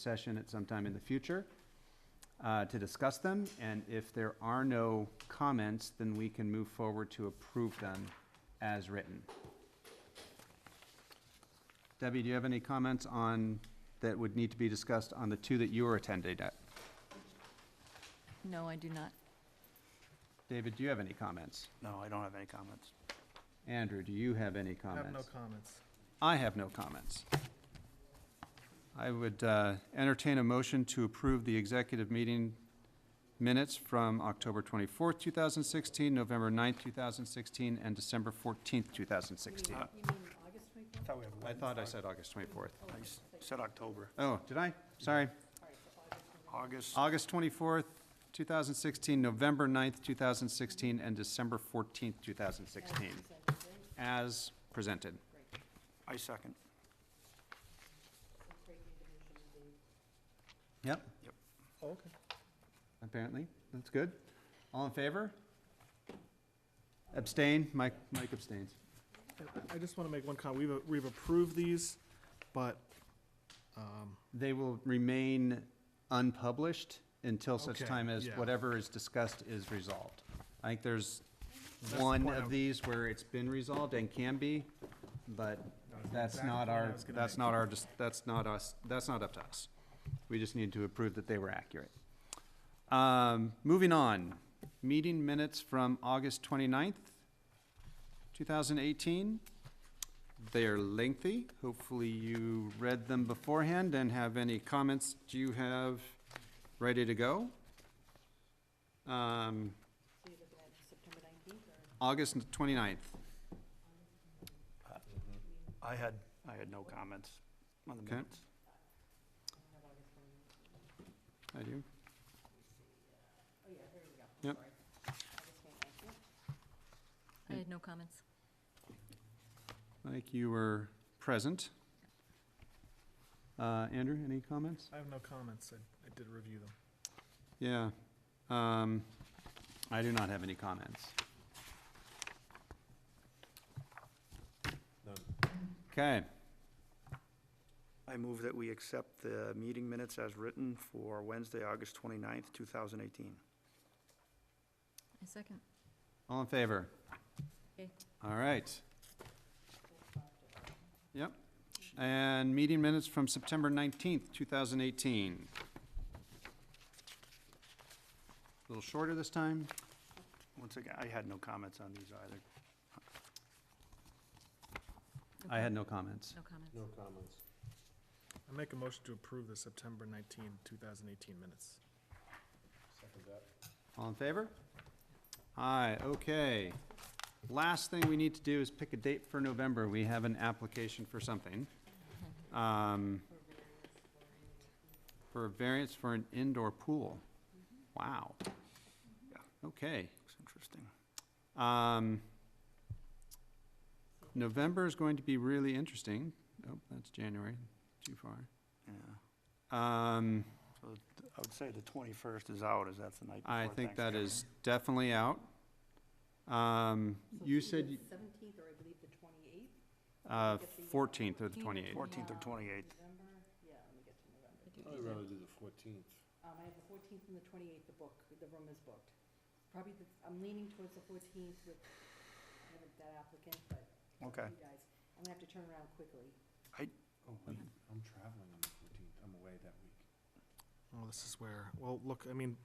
session at some time in the future uh, to discuss them. And if there are no comments, then we can move forward to approve them as written. Debbie, do you have any comments on, that would need to be discussed on the two that you were attending at? No, I do not. David, do you have any comments? No, I don't have any comments. Andrew, do you have any comments? Have no comments. I have no comments. I would uh, entertain a motion to approve the executive meeting minutes from October 24th, 2016, November 9th, 2016, and December 14th, 2016. I thought we had I one. thought I said August 24th. I s- Said October, Oh, did I? Sorry. August, August 24th, 2016, November 9th, 2016, and December 14th, 2016, as presented. I second. Yep, Oh, Okay. apparently. That's good. All in favor? Abstain? Mike, Mike abstains. And I- I just want to make one comment. We've, a- we've approved these, but, um, They will remain unpublished until such Okay, time as yeah. whatever is discussed is resolved. I think there's That's the one point of I'm- these where it's been resolved and can be, but that's exactly not what I our, was gonna that's make. not our, dis- that's not us, that's not up to us. We just need to approve that they were accurate. Um, Moving on, meeting minutes from August 29th, 2018. They're lengthy. Hopefully you read them beforehand and have any comments do you have ready to go? Um, August 29th. I had, I had no comments on the Okay. minutes. I do. Yep. I had no comments. Like you were present. Uh, Andrew, any comments? I have no comments. I, I did review them. Yeah. Um, I do not have any comments. Okay, I move that we accept the meeting minutes as written for Wednesday, August 29th, 2018. A second. all in favor? Okay. All right. Yep. And meeting minutes from September nineteenth, two thousand eighteen. A Little shorter this time. Once again, I had no comments on these either. I had no comments. No comments. No comments. I make a motion to approve the September 19, 2018 minutes. Second that. All in favor? Aye, okay. Last thing we need to do is pick a date for November. We have an application for something. Um, For a variance for an indoor pool. Wow. Okay. Looks interesting. Um, November is going to be really interesting. Oh, that's January, too far. Yeah. Um, So th- I would say the 21st is out, as that's the night before I think that Thanksgiving. is definitely out. Um, You said. you- Seventeenth, or I believe the twenty-eighth? Uh, 14th or the 28th. 14th or 28th. November, yeah, let me get to November. I do Oh, I'd rather do the fourteenth. Um, I have the fourteenth and the twenty-eighth, the book, the room is booked. Probably, the- I'm leaning towards the fourteenth with, I haven't that applicant, but Okay. you guys, I'm gonna have to turn around quickly. Oh, wait, I'm traveling on the fourteenth. I'm away that week. Oh, this is where, well, look, I mean,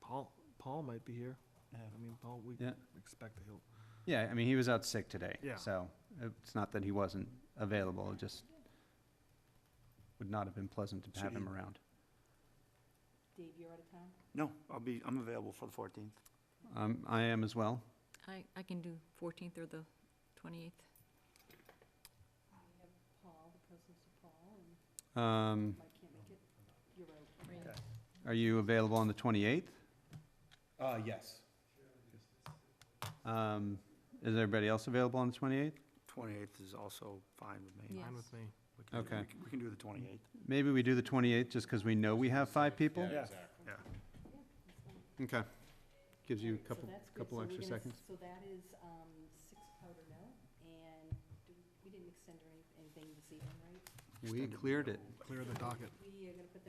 Paul, Paul might be here. Yeah. I mean, Paul, we Yeah. expect that he'll, Yeah, I mean, he was out sick today. Yeah. So it's not that he wasn't available, it just would not have been pleasant to So have him he- around. Dave, you're out of town? No, I'll be, I'm available for the 14th. Um, I am as well. I, I can do 14th or the 28th. We have Paul, the presence of Paul, and Um, Mike can't make it. You're out. Right. okay. Are you available on the 28th? Uh, yes. Um, Is everybody else available on the 28th? 28th is also fine with me. Yeah. Yes. fine with me. We can do Okay. We can- We can do the 28th. Maybe we do the 28th just because we know we have five people? Yeah, exactly. Yeah. Okay. Gives you a Alright, so couple, that's good. couple So we're extra gonna- seconds. So that is um, six powder mill, and do- we didn't extend or any- anything this evening, right? We cleared it. clear the docket. We are gonna put